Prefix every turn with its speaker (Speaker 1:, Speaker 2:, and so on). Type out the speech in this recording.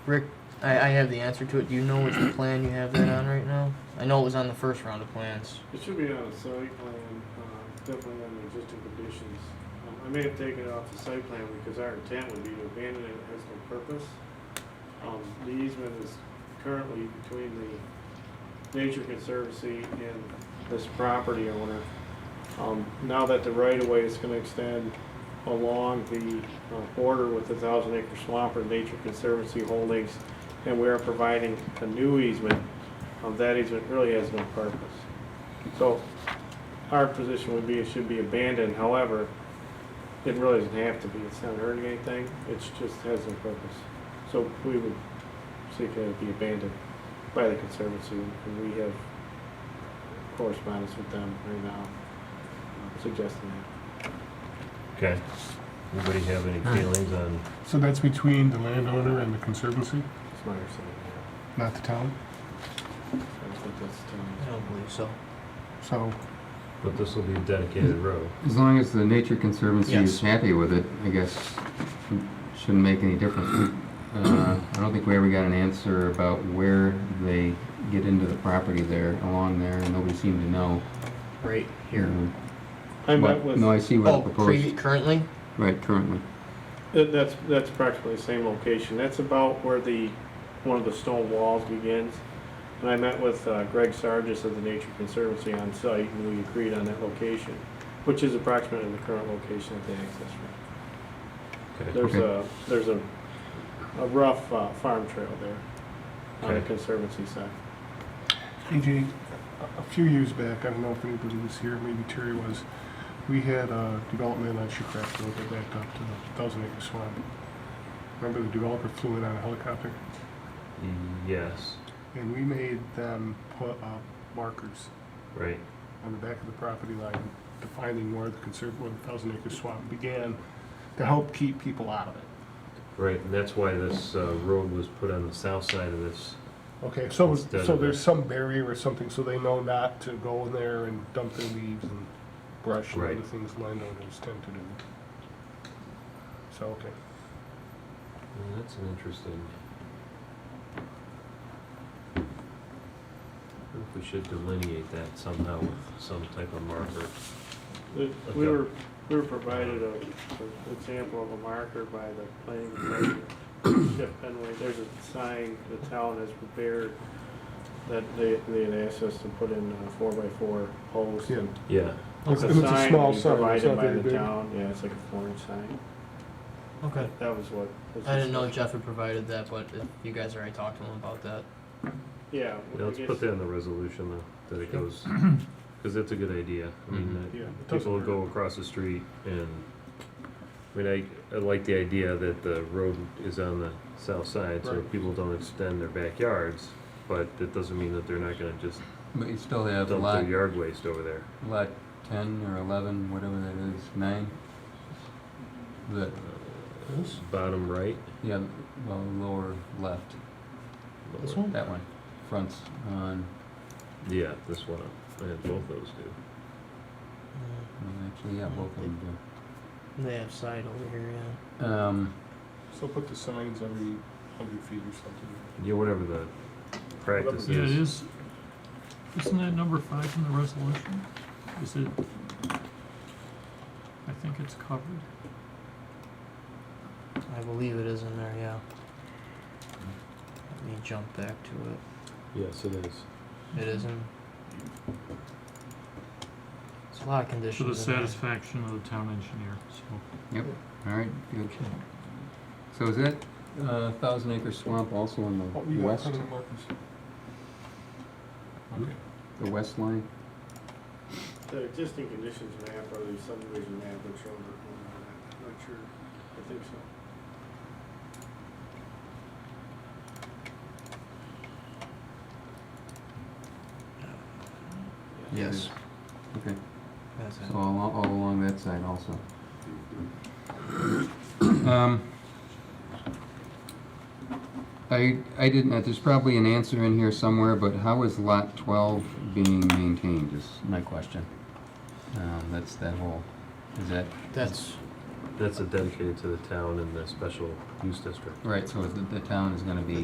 Speaker 1: Rick, I, I have the answer to it. Do you know which plan you have that on right now? I know it was on the first round of plans.
Speaker 2: It should be on a site plan, uh, definitely under existing conditions. Um, I may have taken it off the site plan because our intent would be to abandon it, it has no purpose. Um, The easement is currently between the Nature Conservancy and this property owner. Um, Now that the right-of-way is going to extend along the uh, border with the Thousand Acre Swamp or Nature Conservancy Holdings, and we are providing a new easement, um, that easement really has no purpose. So our position would be it should be abandoned, however, it really doesn't have to be, it's not hurting anything, it's just has no purpose. So we would seek that it be abandoned by the Conservancy, and we have correspondence with them right now uh, suggesting that.
Speaker 3: Okay. Anybody have any feelings on,
Speaker 4: So that's between the landowner and the conservancy,
Speaker 2: It's my understanding, yeah.
Speaker 4: not the town?
Speaker 2: I don't think that's,
Speaker 1: I
Speaker 2: um,
Speaker 1: don't believe so.
Speaker 4: So,
Speaker 3: but this will be a dedicated road.
Speaker 5: As long as the Nature Conservancy
Speaker 1: Yes.
Speaker 5: is happy with it, I guess it shouldn't make any difference. Uh, I don't think we ever got an answer about where they get into the property there, along there, and nobody seemed to know.
Speaker 1: Right here.
Speaker 2: I met
Speaker 5: But-
Speaker 2: with,
Speaker 5: No, I see
Speaker 1: Oh,
Speaker 5: what
Speaker 1: pre-
Speaker 5: proposed,
Speaker 1: currently?
Speaker 5: right, currently.
Speaker 2: that- that's, that's practically the same location, that's about where the, one of the stone walls begins. And I met with uh, Greg Sargis of the Nature Conservancy on site, and we agreed on that location, which is approximately the current location of the access road.
Speaker 3: Okay.
Speaker 2: There's a, there's a, a rough uh, farm trail there on the
Speaker 3: Okay.
Speaker 2: Conservancy side.
Speaker 4: AJ, a- a few years back, I don't know if anybody was here, maybe Terry was, we had a development on Shucraft Road that backed up to the Thousand Acre Swamp. Remember the developer flew in on a helicopter?
Speaker 3: Yes,
Speaker 4: And we made them put up markers
Speaker 3: right,
Speaker 4: on the back of the property line defining where the conserv, where the Thousand Acre Swamp began to help keep people out of it.
Speaker 3: right, and that's why this uh, road was put on the south side of this.
Speaker 4: Okay, so,
Speaker 3: Instead
Speaker 4: so
Speaker 3: of
Speaker 4: there's
Speaker 3: a-
Speaker 4: some barrier or something, so they know not to go in there and dump their leaves and brush and other
Speaker 3: Right.
Speaker 4: things landowners tend to do. So, okay.
Speaker 3: Well, That's an interesting. I wonder If we should delineate that somehow with some type of marker.
Speaker 2: The- We were, we were provided a, an example of a marker by the planning commission, Jeff Penway, there's a sign the town has prepared that they, they had asked us to put in uh, four by four posts.
Speaker 4: Yeah.
Speaker 2: and
Speaker 3: Yeah,
Speaker 4: It's
Speaker 2: the
Speaker 4: it's a
Speaker 2: sign
Speaker 4: small
Speaker 2: we
Speaker 4: sign, it's
Speaker 2: Provided
Speaker 4: not
Speaker 2: by
Speaker 4: very
Speaker 2: the
Speaker 4: big.
Speaker 2: town, yeah, it's like a foreign sign,
Speaker 1: Okay.
Speaker 2: that was what. was
Speaker 1: I didn't know Jeff had provided that, but if you guys already talked to him about that.
Speaker 2: Yeah.
Speaker 3: Yeah,
Speaker 2: I
Speaker 3: let's
Speaker 2: guess-
Speaker 3: put that in the resolution though, that it goes, because that's a good idea. I
Speaker 2: Mm-hmm.
Speaker 3: mean,
Speaker 4: Yeah, it
Speaker 3: that
Speaker 4: doesn't
Speaker 3: people will go
Speaker 4: hurt.
Speaker 3: across the street and, I mean, I, I like the idea that the road is on the south side, so
Speaker 4: Right.
Speaker 3: people don't extend their backyards, but that doesn't mean that they're not gonna just
Speaker 5: But you still
Speaker 3: dump
Speaker 5: have
Speaker 3: their
Speaker 5: lot,
Speaker 3: yard waste over there.
Speaker 5: lot ten or eleven, whatever that is, nine? The,
Speaker 3: Bottom right,
Speaker 5: yeah, well, lower left,
Speaker 1: This
Speaker 3: lower-
Speaker 1: one?
Speaker 5: that one, fronts on,
Speaker 3: yeah, this one, I had both those two.
Speaker 1: Uh,
Speaker 5: well, actually, yeah, both of them do.
Speaker 1: They have side over here, yeah.
Speaker 5: Um,
Speaker 4: So put the signs every hundred feet or something.
Speaker 3: Yeah, whatever the practice
Speaker 6: Yeah, it
Speaker 3: is,
Speaker 6: is, isn't that number five in the resolution? Is it, I think it's covered.
Speaker 1: I believe it is in there, yeah. Let me jump back to
Speaker 3: yes, it is.
Speaker 1: it. It is in. There's a lot of
Speaker 6: To the
Speaker 1: conditions in there.
Speaker 6: satisfaction of the town engineer, so.
Speaker 5: all right, good. So is that uh, Thousand Acre Swamp also on
Speaker 4: Oh,
Speaker 5: the
Speaker 4: you got
Speaker 5: west,
Speaker 4: permanent markers? Okay.
Speaker 5: the west line?
Speaker 2: The existing conditions map or the subdivision map would show the, I'm not sure, I think so.
Speaker 1: Yes.
Speaker 5: Okay,
Speaker 1: That's it.
Speaker 5: so all, all along that side also. Um, I, I didn't, there's probably an answer in here somewhere, but how is lot twelve being maintained is my question. Um, that's that whole, is that
Speaker 1: That's
Speaker 3: That's a dedicated to the town and the special use district.
Speaker 5: Right, so the, the town is gonna be